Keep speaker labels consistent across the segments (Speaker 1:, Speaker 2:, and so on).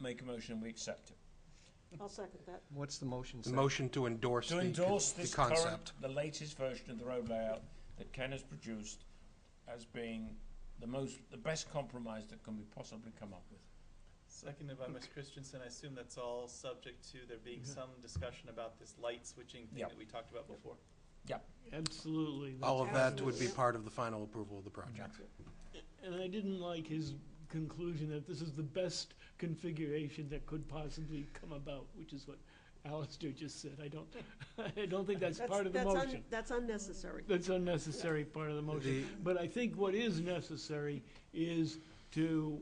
Speaker 1: make a motion, we accept it.
Speaker 2: I'll second that.
Speaker 3: What's the motion
Speaker 4: The
Speaker 3: say?
Speaker 4: motion to endorse
Speaker 1: To
Speaker 4: the,
Speaker 1: endorse
Speaker 4: the
Speaker 1: this current,
Speaker 4: concept.
Speaker 1: the latest version of the road layout that Ken has produced as being the most, the best compromise that can be possibly come up with.
Speaker 5: Seconded by Ms. Christensen, I assume that's all subject to there being some discussion about this light switching thing
Speaker 1: Yeah.
Speaker 5: that we talked about before.
Speaker 6: Absolutely.
Speaker 4: All of that would be
Speaker 2: Absolutely.
Speaker 4: part of the final approval of the project.
Speaker 6: And I didn't like his conclusion that this is the best configuration that could possibly come about, which is what Alistair just said. I don't, I don't think that's
Speaker 2: That's-
Speaker 6: part of the
Speaker 2: that's un-
Speaker 6: motion.
Speaker 2: That's unnecessary.
Speaker 6: That's unnecessary part of the motion.
Speaker 4: The-
Speaker 6: But I think what is necessary is to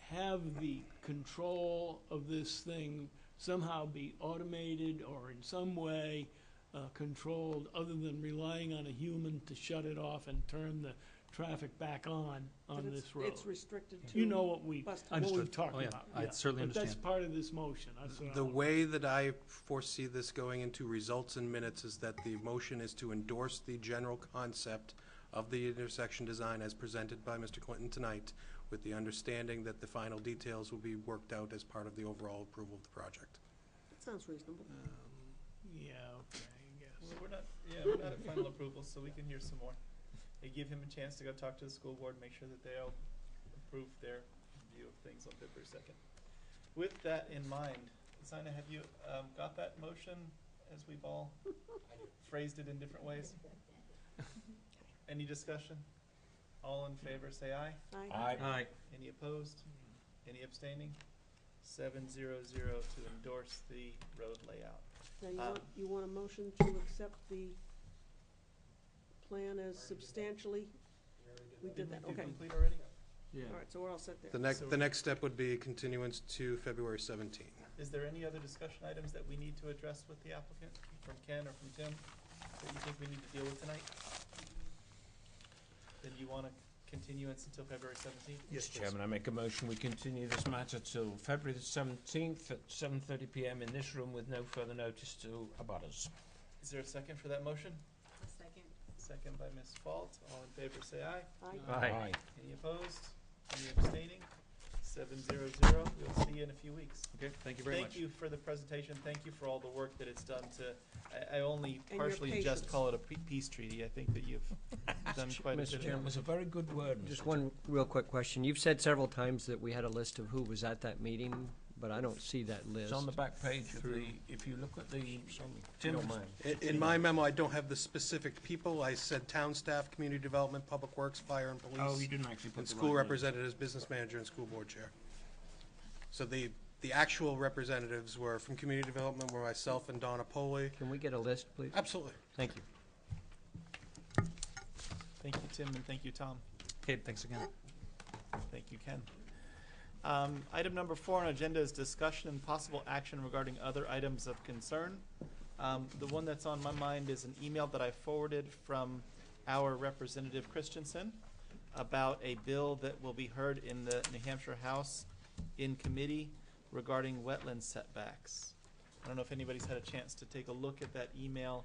Speaker 6: have the control of this thing somehow be automated or in some way uh, controlled, other than relying on a human to shut it off and turn the traffic back on,
Speaker 2: But
Speaker 6: on
Speaker 2: it's-
Speaker 6: this road.
Speaker 2: It's restricted to.
Speaker 6: You know what we,
Speaker 2: bus-
Speaker 6: what we've
Speaker 7: Understood.
Speaker 6: talked
Speaker 7: Oh, yeah.
Speaker 6: about.
Speaker 7: I
Speaker 6: yeah.
Speaker 7: certainly
Speaker 6: But that's
Speaker 7: understand.
Speaker 6: part of this motion. That's what I uh,
Speaker 4: The
Speaker 6: want.
Speaker 4: way that I foresee this going into results in minutes is that the motion is to endorse the general concept of the intersection design as presented by Mr. Clinton tonight, with the understanding that the final details will be worked out as part of the overall approval of the project.
Speaker 2: That sounds reasonable.
Speaker 6: Yeah, okay, I guess.
Speaker 5: Well, we're not, yeah, we're not at final approval, so we can hear some more. And give him a chance to go talk to the school board, make sure that they all approve their view of things on February second. With that in mind, Zina, have you, um, got that motion as we've all phrased it in different ways? Any discussion? All in favor, say aye.
Speaker 2: I,
Speaker 1: I,
Speaker 5: Any opposed? Any abstaining? Seven zero zero to endorse the road layout.
Speaker 2: now you
Speaker 5: uh,
Speaker 2: want, you want a motion to accept the plan as substantially? We did that,
Speaker 5: we do
Speaker 2: okay.
Speaker 5: complete already?
Speaker 2: All right, so we're all set there.
Speaker 4: The next, the next step would be continuance to February 17.
Speaker 5: Is there any other discussion items that we need to address with the applicant, from Ken or from Tim, that you think we need to deal with tonight? Then you want a continuance until February seventeenth?
Speaker 1: Mr. Chairman, I make a motion, we continue this matter till February the seventeenth at seven thirty PM in this room with no further notice to abutters.
Speaker 5: Is there a second for that motion?
Speaker 8: Second.
Speaker 5: Second by Ms. Fault, all in favor say aye.
Speaker 2: Aye.
Speaker 1: Aye.
Speaker 5: Any opposed? Any abstaining? Seven zero zero, we'll see you in a few weeks.
Speaker 7: Okay, thank you
Speaker 5: Thank you for the presentation, thank you for all the work that it's done to, I, I only
Speaker 2: your
Speaker 5: partially just
Speaker 2: patience.
Speaker 5: call it a pe- peace treaty, I think that you've done quite a bit of.
Speaker 1: Mr. Chairman, it was a very good word, Mr.
Speaker 3: Just one real quick question. You've said several times that we had a list of who was at that meeting, but I don't see that list.
Speaker 1: It's on the back page of the, if you look at the, Tim's
Speaker 4: In, in my memo, I don't have the specific people. I said town staff, community development, public works, fire and police.
Speaker 1: Oh, you didn't actually put
Speaker 4: And
Speaker 1: the
Speaker 4: school
Speaker 1: right name.
Speaker 4: representatives, business manager, and school board chair. So the, the actual representatives were from community development, were myself and Donna Poley.
Speaker 3: Can we get a list, please?
Speaker 4: Absolutely.
Speaker 3: Thank you.
Speaker 5: Thank you, Tim, and thank you, Tom.
Speaker 7: Kate, thanks again.
Speaker 5: Thank you, Ken. Um, item number four on agenda is discussion and possible action regarding other items of concern. Um, the one that's on my mind is an email that I forwarded from our representative Christensen about a bill that will be heard in the New Hampshire House in committee regarding wetland setbacks. I don't know if anybody's had a chance to take a look at that email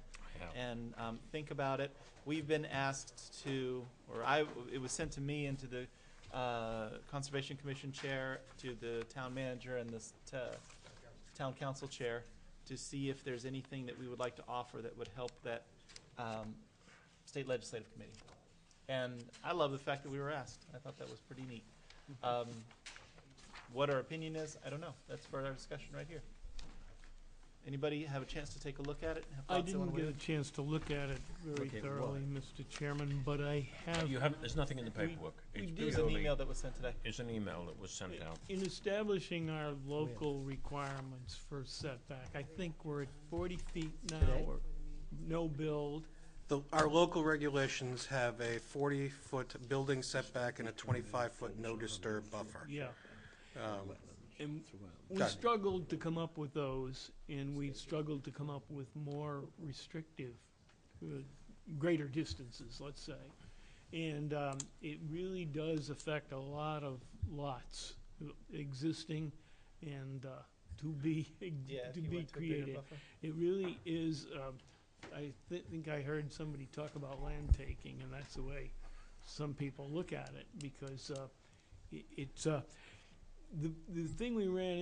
Speaker 5: and um, think about it. We've been asked to, or I, it was sent to me and to the uh, Conservation Commission Chair, to the Town Manager and the s- to Town Council Chair, to see if there's anything that we would like to offer that would help that um, State Legislative Committee. And I love the fact that we were asked. I thought that was pretty neat. Um, What our opinion is, I don't know. That's for our discussion right here. Anybody have a chance to take a look at it? and have
Speaker 6: I
Speaker 5: thoughts they wanna
Speaker 6: didn't
Speaker 5: weigh in?
Speaker 6: get a chance to look at it very
Speaker 1: Look at
Speaker 6: thoroughly, Mr. Chairman, but I have
Speaker 1: You haven't, there's nothing in the
Speaker 6: We-
Speaker 1: paperwork.
Speaker 6: we
Speaker 1: It's
Speaker 6: did-
Speaker 5: It was an
Speaker 1: purely-
Speaker 5: email that was sent today.
Speaker 1: It's an email that was sent out.
Speaker 6: In establishing
Speaker 4: Oh,
Speaker 6: our local requirements for setback, I think we're at forty feet now, or no build.
Speaker 4: The, our local regulations have a forty-foot building setback and a twenty-five-foot no disturb buffer.
Speaker 6: Yeah.
Speaker 4: Um,
Speaker 6: And we
Speaker 4: Got it.
Speaker 6: struggled to come up with those, and we struggled to come up with more restrictive, uh, greater distances, let's say. And um, it really does affect a lot of lots uh, existing and uh, to be,
Speaker 5: Yeah, if
Speaker 6: to
Speaker 5: you
Speaker 6: be
Speaker 5: went to a bigger
Speaker 6: created.
Speaker 5: buffer.
Speaker 6: It really is, um, I thi- think I heard somebody talk about land taking, and that's the way some people look at it, because, uh, i- it's, uh, the, the thing we ran